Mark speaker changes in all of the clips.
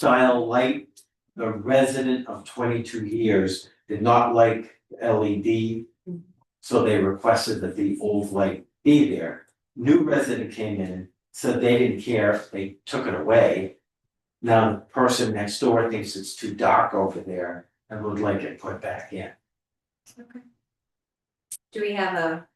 Speaker 1: style light. The resident of twenty-two years did not like LED. So they requested that the old light be there. New resident came in, said they didn't care, they took it away. Now the person next door thinks it's too dark over there and would like it put back in.
Speaker 2: Okay. Do we have a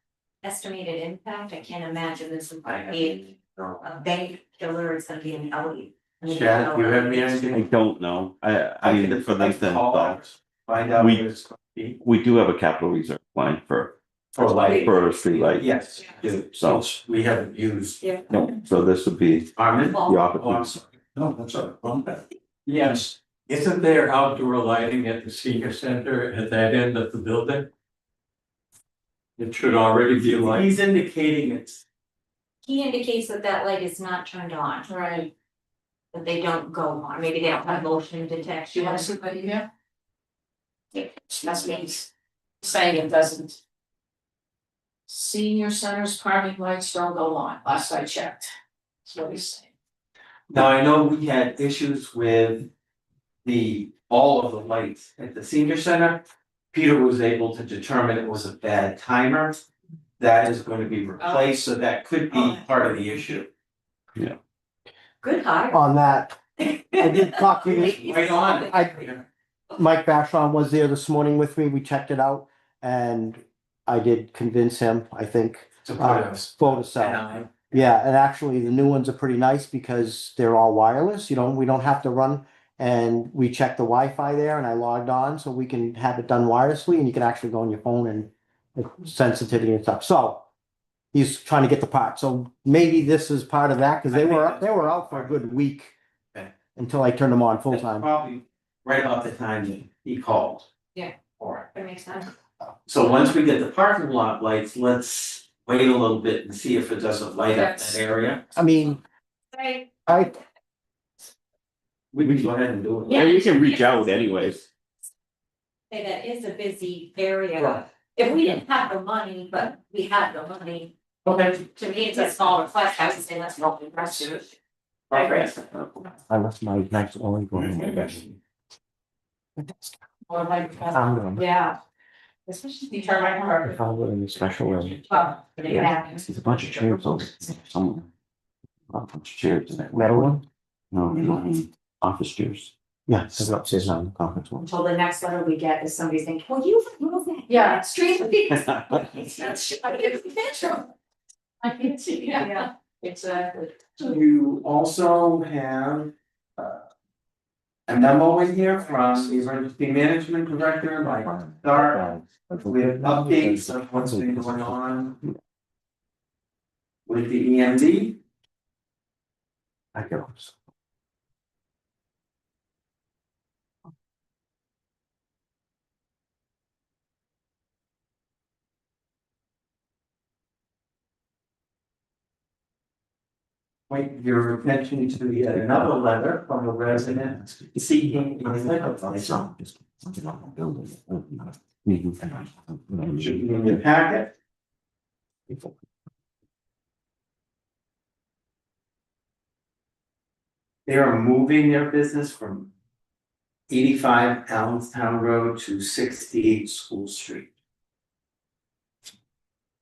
Speaker 2: estimated impact? I can't imagine this would
Speaker 1: I
Speaker 2: be
Speaker 1: So,
Speaker 2: a bank killer, it's gonna be an E. alley.
Speaker 1: Chad, you have any
Speaker 3: I
Speaker 1: idea?
Speaker 3: don't know, I, I mean, for
Speaker 1: I
Speaker 3: them
Speaker 1: could
Speaker 3: to,
Speaker 1: call
Speaker 3: but
Speaker 1: ours, Find out
Speaker 3: We-
Speaker 1: what it's gonna be
Speaker 3: we do have a capital reserve line for,
Speaker 1: for lighting.
Speaker 3: for a streetlight,
Speaker 1: Yes, do,
Speaker 3: so,
Speaker 1: which we haven't used.
Speaker 2: Yeah.
Speaker 3: no, so this would be
Speaker 1: Armin?
Speaker 3: the
Speaker 2: Well,
Speaker 1: Oh, I'm
Speaker 3: opportunity.
Speaker 1: sorry.
Speaker 4: No, that's all right.
Speaker 1: Yes,
Speaker 4: Isn't there outdoor lighting at the senior center at that end of the building? It should already be light.
Speaker 1: he's indicating it's,
Speaker 2: He indicates that that light is not turned on. Right. That they don't go on, maybe they don't have motion
Speaker 5: Do
Speaker 2: detection.
Speaker 5: you want somebody here? That's me saying it doesn't. Senior centers parking lights don't go on, last I checked. That's what he's saying.
Speaker 1: now I know we had issues with the, all of the lights at the senior center. Peter was able to determine it was a bad timer. That is going to be replaced, so that could be
Speaker 5: Oh.
Speaker 1: part of the issue.
Speaker 2: Good hire.
Speaker 6: on that. I did talk to you,
Speaker 1: Right on.
Speaker 6: I- Mike Bashon was there this morning with me, we checked it out, and I did convince him, I think.
Speaker 1: To put
Speaker 6: uh,
Speaker 1: us.
Speaker 6: Photo
Speaker 1: And
Speaker 6: cell,
Speaker 1: I-
Speaker 6: yeah, and actually, the new ones are pretty nice because they're all wireless, you know, we don't have to run. And we checked the Wi-Fi there and I logged on, so we can have it done wirelessly, and you can actually go on your phone and like, sensitivity and stuff, so. He's trying to get the part, so maybe this is part of that, because
Speaker 1: I
Speaker 6: they
Speaker 1: think
Speaker 6: were,
Speaker 1: that's-
Speaker 6: they were out for a good week.
Speaker 1: Okay.
Speaker 6: Until I turned them on full
Speaker 1: That's
Speaker 6: time.
Speaker 1: Probably right about the time he- he called.
Speaker 2: Yeah.
Speaker 1: Alright,
Speaker 2: That makes sense.
Speaker 1: so once we get the parking lot lights, let's wait a little bit and see if it doesn't light up that
Speaker 5: Yes.
Speaker 1: area.
Speaker 6: I mean,
Speaker 2: Right.
Speaker 6: I,
Speaker 1: We can go ahead and do it.
Speaker 3: Yeah, you can reach out anyways,
Speaker 2: Say that is a busy area. If we didn't have the money, but we had the money,
Speaker 1: Okay.
Speaker 2: to me, it's a small request, I would say that's not impressive. Progress.
Speaker 6: I left my next only going.
Speaker 5: Or like, uh,
Speaker 6: Found them.
Speaker 5: yeah. Especially the termite
Speaker 6: I
Speaker 5: harbor.
Speaker 6: found them in a special room.
Speaker 5: Uh, but it happens.
Speaker 3: there's a bunch of chairs over somewhere. A bunch of chairs in there.
Speaker 6: Metal one?
Speaker 3: No, you know, I mean, office chairs.
Speaker 6: Yeah, this is upstairs now, the conference room.
Speaker 2: Until the next letter we get is somebody saying, well, you move that.
Speaker 5: Yeah.
Speaker 2: Street.
Speaker 5: It's not, sh- I mean, it's a picture. I can see, yeah,
Speaker 2: Yeah.
Speaker 5: exactly.
Speaker 1: You also have uh, a memo in here from the emergency management director, Mike Starr. We have updates of what's been going on with the E EMD.
Speaker 6: I go.
Speaker 1: point your attention to yet another letter from a resident seeking a liquor license.
Speaker 3: Mm-hmm.
Speaker 1: Should be in your packet. They are moving their business from eighty-five Allenstown Road to sixty-eight School Street.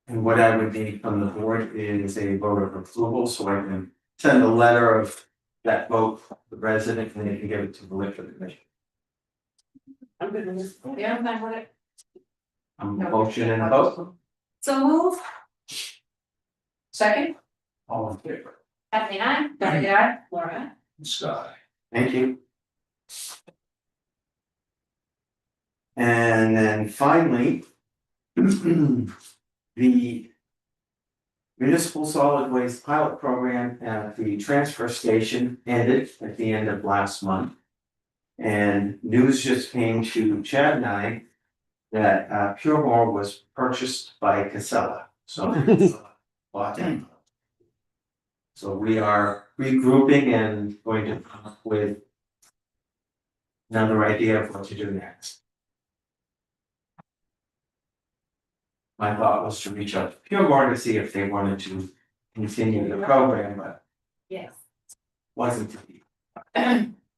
Speaker 1: And what I would need from the board is a vote of approval, so I can send a letter of that vote, to the resident, and they can give it to the liquor commission.
Speaker 5: I'm gonna miss, yeah, I'm not what it.
Speaker 1: Um, motion and a vote,
Speaker 2: So move,
Speaker 5: Second,
Speaker 1: all in favor?
Speaker 2: Kathleen, I,
Speaker 5: Diane, aye. Laura.
Speaker 4: Sky.
Speaker 1: Thank you. And then finally. The. Municipal solid waste pilot program at the transfer station ended at the end of last month. And news just came to Chad and I. That uh Puremore was purchased by Casella, so. Bought it. So we are regrouping and going to come up with. Another idea of what to do next. My thought was to reach out to Pure to see if they wanted to continue the program, but
Speaker 2: yes,
Speaker 1: wasn't to be.